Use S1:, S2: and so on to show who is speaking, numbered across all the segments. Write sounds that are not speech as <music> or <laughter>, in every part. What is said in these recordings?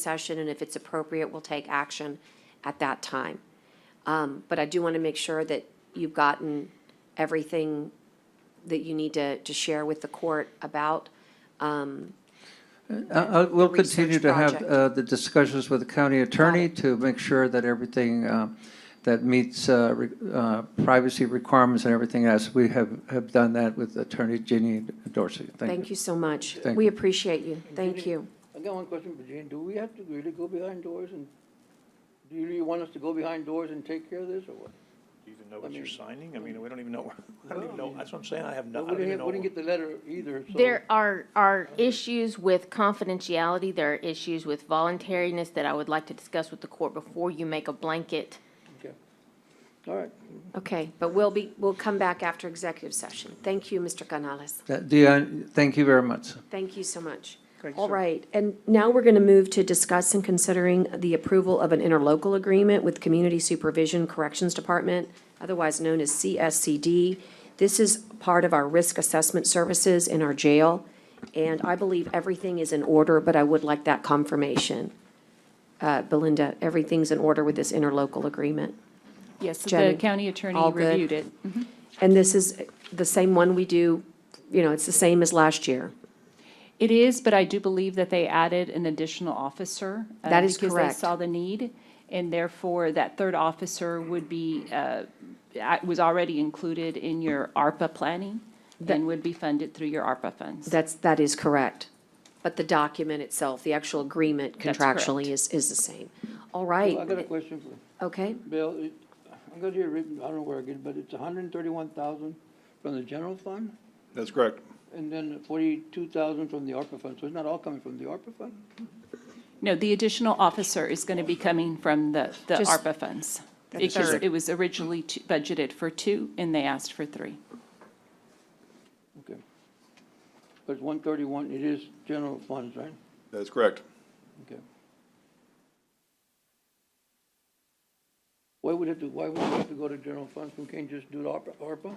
S1: session, and if it's appropriate, we'll take action at that time. Um, But I do want to make sure that you've gotten everything that you need to, to share with the court about.
S2: Uh, uh, We'll
S1: research
S2: continue to have
S1: project.
S2: uh, the discussions with the county attorney to make sure that everything uh, that meets uh, re- uh, privacy requirements and everything else, we have, have done that with Attorney Ginny Dorsey.
S1: Thank you so much.
S2: Thank
S1: We
S2: you.
S1: appreciate you. Thank you.
S3: I got one question for Jane. Do we have to really go behind doors and, do you really want us to go behind doors and take care of this or what?
S4: Do you even know what you're
S3: mean-
S4: signing? I mean, we don't even know, <laughs> I don't even know, that's what I'm saying, I have no, I
S3: We
S4: don't even
S3: didn't,
S4: know.
S3: we didn't get the letter either, so.
S5: There are, are issues with confidentiality, there are issues with voluntariness that I would like to discuss with the court before you make a blanket.
S3: Okay. All right.
S1: Okay, but we'll be, we'll come back after executive session. Thank you, Mr. Canales.
S2: That- Uh, Dion, thank you very much.
S1: Thank you so much.
S4: Thank you,
S1: All
S4: sir.
S1: right, and now we're going to move to discuss and considering the approval of an interlocal agreement with Community Supervision Corrections Department, otherwise known as CSCD. This is part of our risk assessment services in our jail, and I believe everything is in order, but I would like that confirmation. Uh, Belinda, everything's in order with this interlocal agreement.
S6: Yes, the
S1: Jenny?
S6: county attorney
S1: All good?
S6: reviewed it.
S1: And this is the same one we do, you know, it's the same as last year.
S6: It is, but I do believe that they added an additional officer. uh,
S1: That is
S6: Because
S1: correct.
S6: they saw the need, and therefore that third officer would be, uh, I- was already included in your ARPA planning and would be funded through your ARPA funds.
S1: That's, that is correct. But the document itself, the actual agreement
S6: That's
S1: contractually is,
S6: correct.
S1: is the same. All
S3: Well, I got a
S1: right,
S3: question for
S1: okay,
S3: Bill. It- I got here written, I don't know where I get it, but it's hundred and thirty-one thousand from the general fund
S4: That's correct.
S3: and then forty-two thousand from the ARPA fund. So it's not all coming from the ARPA fund?
S6: No, the additional officer is going to be coming from the, the
S1: Just-
S6: ARPA funds. Because it was originally two- budgeted for two, and they asked for three.
S3: Okay. But it's one thirty-one, it is general funds, right?
S7: That's correct.
S3: Okay. Why would it, do- why would it have to go to general funds? We can't just do the ARPA, ARPA?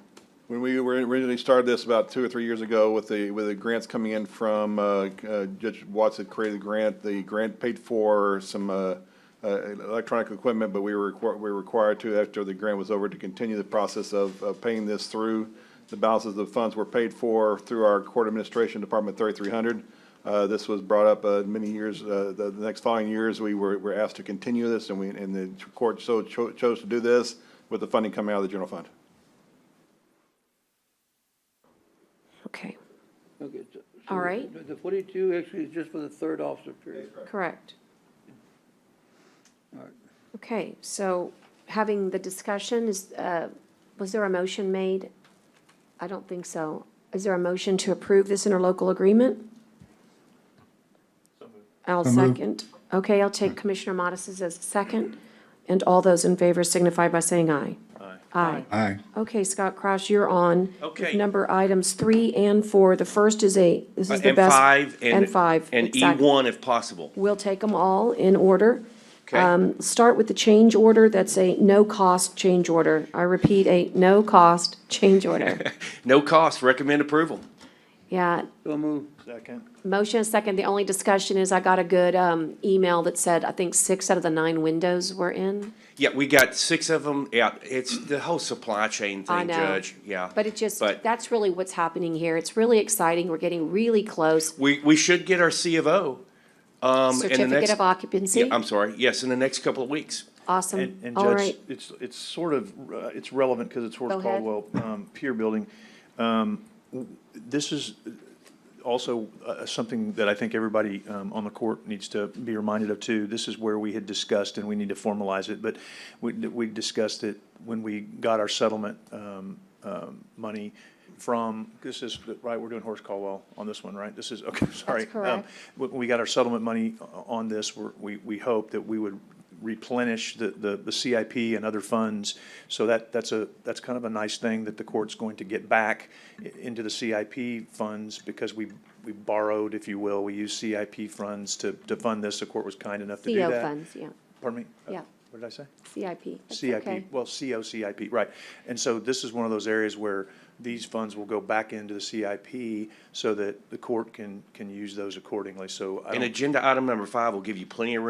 S7: When we were originally started this about two or three years ago with the, with the grants coming in from, uh, uh, Judge Watts had created the grant. The grant paid for some, uh, uh, electronic equipment, but we were, requ- we were required to, after the grant was over, to continue the process of, of paying this through. The balances of funds were paid for through our court administration department thirty-three hundred. Uh, this was brought up, uh, many years, uh, the, the next following years, we were, were asked to continue this and we, and the court so cho- chose to do this with the funding coming out of the general fund.
S1: okay,
S3: Okay. so-
S1: All
S3: so
S1: right.
S3: the- The forty-two actually is just for the third officer period.
S1: correct. Okay, so having the discussion is, uh, was there a motion made? I don't think so. Is there a motion to approve this interlocal agreement? I'll second. Okay, I'll take Commissioner Modis's as a second. And all those in favor signify by saying aye.
S4: Aye.
S1: Aye.
S8: Aye.
S1: Okay, Scott Cross, you're on. with
S9: Okay.
S1: Number items three and four. The first is a, this is the
S9: Uh, And
S1: best.
S9: five and.
S1: And five.
S9: And E
S1: exactly.
S9: one if possible.
S1: We'll take them all in order.
S9: Okay.
S1: Um, Start with the change order. That's a no-cost change order. I repeat, a no-cost change
S9: <laughs>
S1: order.
S9: No cost, recommend approval.
S1: Yeah,
S3: So move.
S4: Second.
S3: Mm.
S1: motion is second. The only discussion is I got a good um, email that said, I think six out of the nine windows were in.
S9: Yeah, we got six of them. Yeah, it's the whole supply chain
S1: I
S9: thing,
S1: know.
S9: Judge. Yeah.
S1: But it just,
S9: But-
S1: that's really what's happening here. It's really exciting. We're getting really close.
S9: We, we should get our C of O. um, in the
S1: Certificate
S9: next-
S1: of occupancy.
S9: Yeah, um, I'm sorry. Yes, in the next couple of weeks.
S1: Awesome.
S4: And, and
S1: All
S4: Judge,
S1: right.
S4: it's, it's sort of, uh, it's relevant because it's
S1: Go
S4: Horace
S1: ahead.
S4: Caldwell um, Pier Building. Um, w- This is also uh, something that I think everybody um, on the court needs to be reminded of too. This is where we had discussed, and we need to formalize it, but we, we discussed it when we got our settlement um, um, money from, this is, right, we're doing Horace Caldwell on this one, right? This is, okay, <laughs> sorry. Um,
S1: correct.
S4: When we got our settlement money o- on this, we're- we, we hope that we would replenish the, the the CIP and other funds. So that, that's a, that's kind of a nice thing that the court's going to get back i- into the CIP funds because we, we borrowed, if you will, we used CIP funds to, to fund this. The court was kind enough to do
S1: CO
S4: that.
S1: funds, yeah,
S4: Pardon me? Uh,
S1: yeah.
S4: What did I say?
S1: CIP. That's okay.
S4: CIP, well, COCIP, right. And so this is one of those areas where these funds will go back into the CIP so that the court can, can use those accordingly, so. I
S9: And
S4: don't-
S9: agenda item number five will give you plenty of room